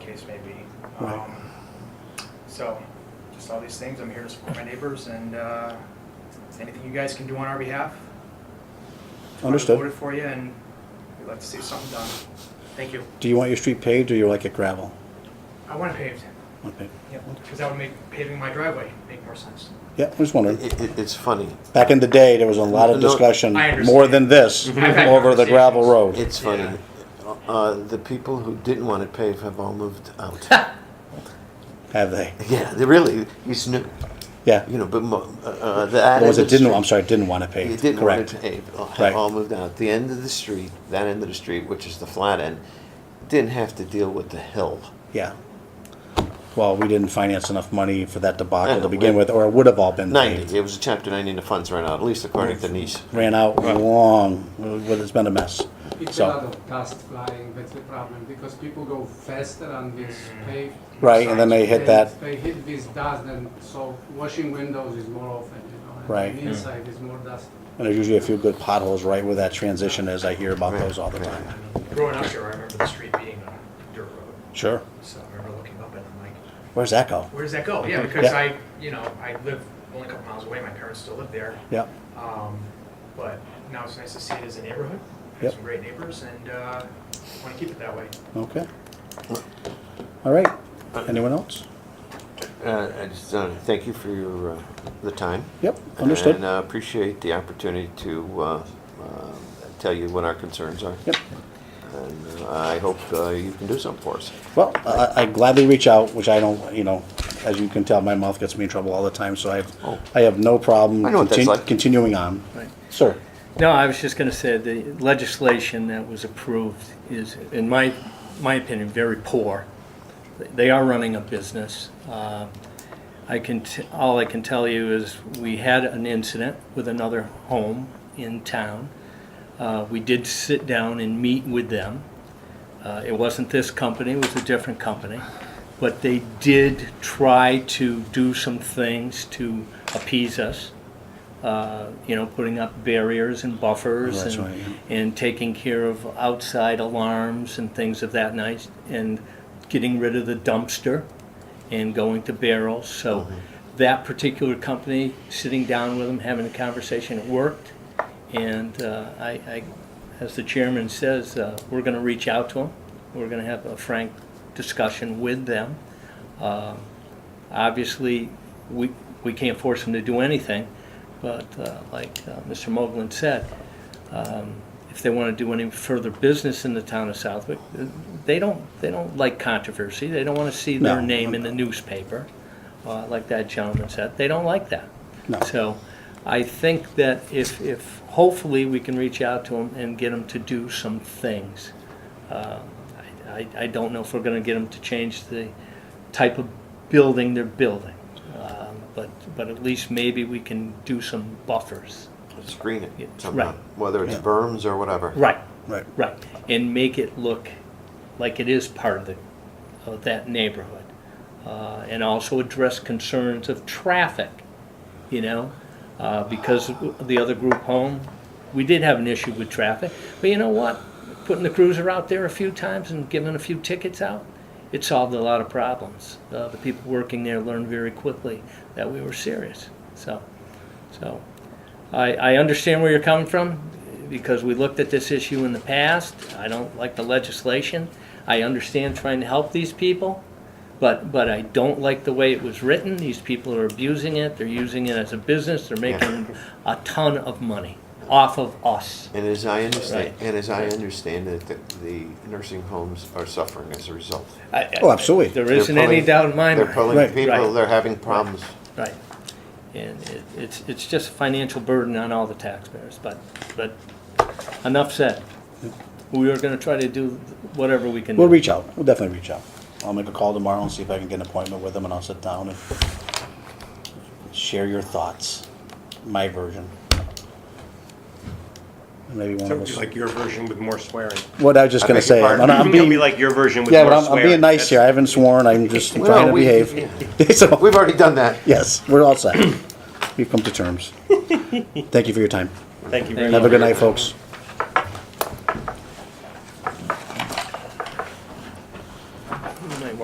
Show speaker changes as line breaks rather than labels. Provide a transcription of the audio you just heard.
case may be.
Right.
Um, So, just all these things, I'm here to support my neighbors and uh, anything you guys can do on our behalf. I
Understood.
Voted for you and we'd like to see something done. Thank you.
Do you want your street paved or you like it gravel?
I want it paved,
Okay.
because that would make paving my driveway make more sense.
Yeah, I'm just wondering.
It, it, it's funny.
Back in the day, there was a lot of
No,
discussion,
I understand.
more than this,
I've had
over the gravel
conversations.
road.
It's funny.
Yeah.
Uh, the people who didn't want it paved have all moved out.
Have they?
yeah, they really. It's new.
Yeah.
You know, but mo- uh, uh, the end
Or was
of
it
the
didn't,
street-
I'm sorry, didn't want it
It
paved,
didn't
correct.
want it paved. All, have
Right.
all moved out. The end of the street, that end of the street, which is the flat end, didn't have to deal with the hill.
Yeah. Well, we didn't finance enough money for that
I
debacle
know,
to begin
we-
with, or it would have all been
Ninety.
paved.
It was a chapter ninety, and the funds ran out. At least according to Denise.
Ran out long, well, it's been a mess.
It's a lot
So,
of dust flying, that's the problem, because people go faster on this paved.
Right, and then they hit that-
They hit this dust, and so washing windows is more often, you know. and
Right.
the Inside is more dust.
and there's usually a few good potholes right where that transition is, I hear about
Right,
those all the
right.
time.
Growing up here, I remember the street being a dirt road,
Sure.
so I remember looking up and I'm like,
Where's that go?
where does that go? Yeah, because
Yeah.
I, you know, I live only a couple miles away, my parents still live there.
Yeah,
Um, But now it's nice to see it as a neighborhood, We
Yep.
have some great neighbors, and uh, want to keep it that way.
okay. All right, anyone else?
Uh, I just uh, thank you for your uh, the time.
Yep, understood.
And uh, appreciate the opportunity to uh, uh, tell you what our concerns are.
Yep.
And uh, I hope uh, you can do something for us.
Well, I, I gladly reach out, which I don't, you know, as you can tell, my mouth gets me in trouble all the time, so I
Oh.
have, I have no problem
I know what that's
contin-
like.
continuing on. Sir,
No, I was just going to say the legislation that was approved is, in my, my opinion, very poor. They are running a business. Uh, I can, t- all I can tell you is we had an incident with another home in town. Uh, We did sit down and meet with them. Uh, It wasn't this company, it was a different company. But they did try to do some things to appease us uh, you know, putting up barriers and buffers
That's
and,
right,
and taking care of outside alarms and things of that night and getting rid of the dumpster and going to barrels. So
Uh-huh.
that particular company, sitting down with them, having a conversation, it worked. And uh, I, I, as the chairman says, uh, we're going to reach out to them. We're going to have a frank discussion with them. Um, Obviously, we, we can't force them to do anything, but uh, like uh, Mr. Moglen said, um, if they want to do any further business in the town of Southwick, uh, they don't, they don't like controversy. They don't want to see their
No.
name in the newspaper, uh, like that gentleman said. They don't like that.
No.
So I think that if, if, hopefully, we can reach out to them and get them to do some things. Uh, I, I- I don't know if we're gonna get them to change the type of building they're building. Um, But, but at least maybe we can do some buffers.
Screen it
Yeah,
somehow,
right.
whether it's berms or whatever.
Right,
right,
right. And make it look like it is part of the, of that neighborhood. Uh, And also address concerns of traffic, you know? Uh, Because the other group home, we did have an issue with traffic. But you know what? Putting the cruiser out there a few times and giving a few tickets out, it solved a lot of problems. Uh, The people working there learned very quickly that we were serious, so. So I, I understand where you're coming from because we looked at this issue in the past. I don't like the legislation. I understand trying to help these people, but, but I don't like the way it was written. These people are abusing it. They're using it as a business. They're making a ton of money off of us.
And as I understand,
Right.
and as I understand it, the, the nursing homes are suffering as a result.
I- I-
Oh, absolutely.
There
They're
isn't any
pulling-
doubt in my mind.
They're pulling
Right.
people.
Right.
They're having problems.
Right. And it, it's, it's just a financial burden on all the taxpayers, but, but enough said. We are gonna try to do whatever we can do.
we'll reach out, we'll definitely reach out. I'll make a call tomorrow and see if I can get an appointment with them, and I'll sit down and share your thoughts, my version. And Maybe one
So
of
it'd be
us,
like your version with more swearing.
what I was just
I
gonna
beg your
say, I'm
pardon?
I'm
It'll be
being,
like your version with
yeah,
more
but
swearing.
I'm, I'm being nice here, I haven't sworn, I'm just
Well,
trying to
we-
behave. So-
We've already done that.
Yes, we're all set. We've come to terms. Thank you for your time.
Thank you very much.
Have a good night, folks.